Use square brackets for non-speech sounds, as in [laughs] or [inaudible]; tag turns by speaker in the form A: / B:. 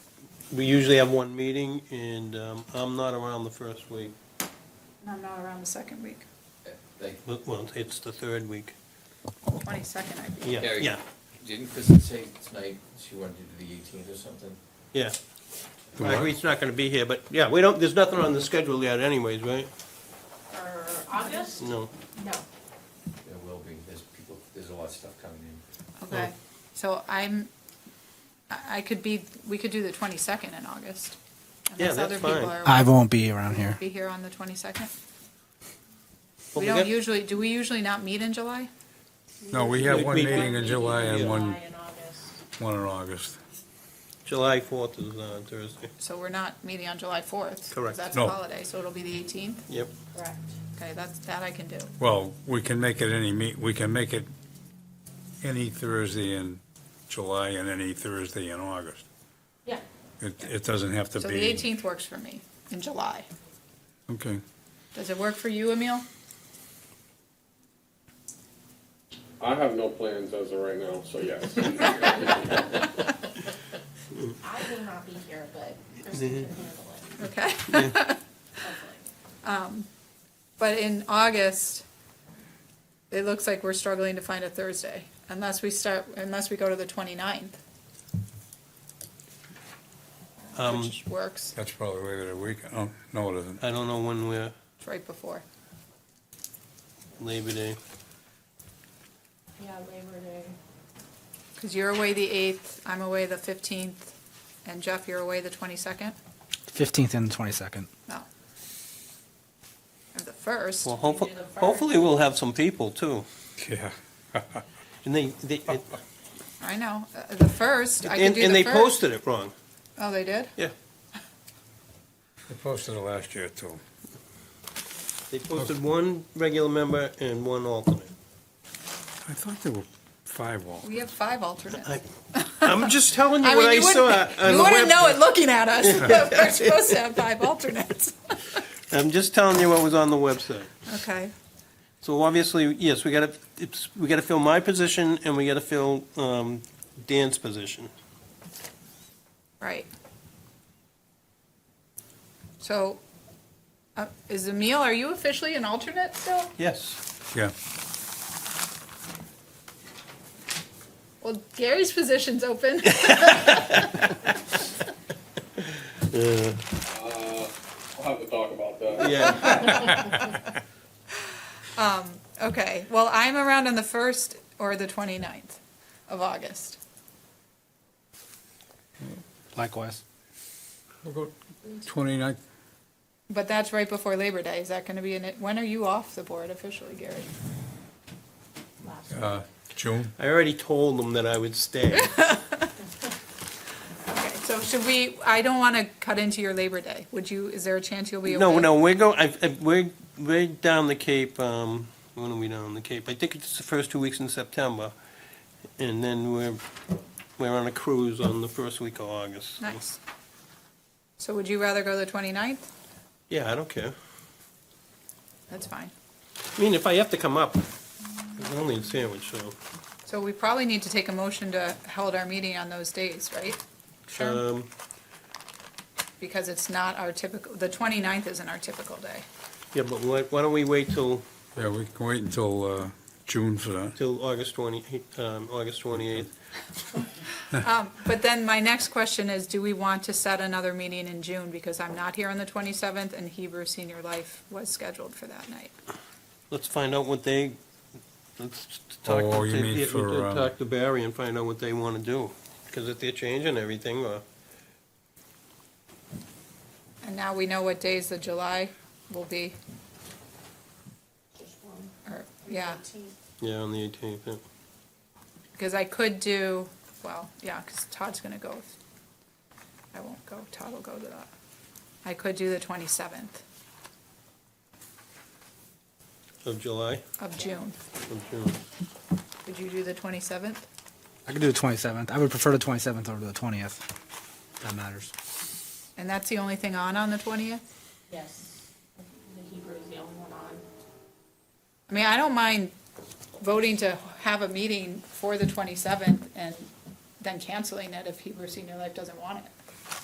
A: we usually have one meeting, and um, I'm not around the first week,
B: And I'm not around the second week,
C: They,
A: but, well, it's the third week.
B: twenty-second, I think.
A: Yeah,
C: Gary.
A: yeah,
C: didn't Kristen say tonight she wanted to do the eighteenth or something?
A: yeah. I agree, it's not gonna be here, but, yeah, we don't, there's nothing on the schedule yet anyways, right?
D: For August?
A: No.
D: No.
C: There will be, there's people, there's a lot of stuff coming in.
B: Okay, so I'm, I I could be, we could do the twenty-second in August.
A: Yeah,
B: unless
A: that's
B: other people
A: fine.
B: are-
E: I won't be around here.
B: Be here on the twenty-second?
A: Well,
B: We
A: we
B: don't
A: got-
B: usually, do we usually not meet in July?
F: No, we have one
A: We-
F: meeting in July and one,
D: July and August.
F: one in August.
A: July fourth is on Thursday.
B: So we're not meeting on July fourth.
A: Correct.
B: That's
F: No.
B: a holiday, so it'll be the eighteenth.
A: Yep,
D: Correct.
B: Okay, that's, that I can do.
F: Well, we can make it any meet, we can make it any Thursday in July and any Thursday in August.
D: Yeah.
F: It, it doesn't have to be.
B: So the eighteenth works for me, in July.
F: Okay.
B: Does it work for you, Emil?
G: I have no plans as of right now, so yes.
D: I will not be here, but Kristen can handle it,
B: Okay. [laughs]
D: hopefully.
B: Um, But in August, it looks like we're struggling to find a Thursday, unless we start, unless we go to the 29th,
A: um,
B: which works,
F: That's probably later the week. Oh, no, it isn't.
A: I don't know when we're,
B: it's right before.
A: Labor Day.
D: Yeah, Labor Day.
B: Because you're away the 8th, I'm away the 15th, and Jeff, you're away the 22nd?
E: 15th and 22nd.
B: No. Or the 1st?
A: Well, hopefully,
D: do the first.
A: hopefully we'll have some people too.
F: Yeah.
A: And they, they, it-
B: I know, uh, the 1st, I can
A: and
B: do the 1st.
A: and they posted it wrong.
B: Oh, they did?
A: Yeah,
F: They posted it last year too.
A: they posted one regular member and one alternate.
F: I thought there were five walls.
B: We have five alternates.
A: I- I'm just telling you
B: I
A: what
B: mean,
A: I
B: you
A: saw
B: wouldn't,
A: on
B: you
A: the
B: wouldn't know it
A: web.
B: looking at us, [laughs] we're supposed to
A: [laughs]
B: have five alternates.
A: I'm just telling you what was on the website.
B: Okay.
A: So obviously, yes, we gotta, it's, we gotta fill my position and we gotta fill, um, Dan's position.
B: Right. So, uh, is Emil, are you officially an alternate still?
A: Yes.
F: Yeah.
B: Well, Gary's
A: [laughs]
B: position's open.
G: I'll have to talk about that.
A: Yeah,
B: Okay, well, I'm around on the 1st or the 29th of August.
E: Likewise.
F: We'll go 29th.
B: But that's right before Labor Day. Is that going to be in it? When are you off the board officially, Gary?
D: Last
F: uh, June.
A: I already told them that I would stay.
B: Okay, so should we, I don't want to cut into your Labor Day. Would you, is there a chance you'll be away?
A: No, no, we're go, I, I, we're, we're down the Cape, um, when are we down the Cape? I think it's the first two weeks in September. And then we're, we're on a cruise on the first week of August. so-
B: Nice. So would you rather go the 29th?
A: Yeah, I don't care.
B: That's fine.
A: I mean, if I have to come up, it's only a sandwich, so.
B: So we probably need to take a motion to hold our meeting on those days, right? Sure.
A: Um,
B: Because it's not our typical, the 29th isn't our typical day.
A: yeah, but why, why don't we wait till,
F: Yeah, we can wait until, uh, June for that.
A: till August twenty, um, August twenty-eighth?
B: Um, But then my next question is, do we want to set another meeting in June? Because I'm not here on the 27th, and Hebrew Senior Life was scheduled for that night.
A: Let's find out what they, let's talk.
F: Oh,
A: to-
F: you mean
A: yeah,
F: for,
A: we'll
F: um,
A: Talk to Barry and find out what they wanna do, because if they're changing everything, uh,
B: And now we know what days the July will be,
D: Just one.
B: or, yeah,
D: Eighteenth.
A: yeah, on the eighteenth, yeah.
B: because I could do, well, yeah, because Todd's gonna go. I won't go, Todd will go to that. I could do the 27th
A: of July,
B: of June.
A: of June.
B: Would you do the 27th?
E: I could do the 27th. I would prefer the 27th over the 20th. That matters.
B: And that's the only thing on on the 20th?
D: Yes. The Hebrew is the only one on.
B: I mean, I don't mind voting to have a meeting for the 27th and then canceling it if Hebrew Senior Life doesn't want it.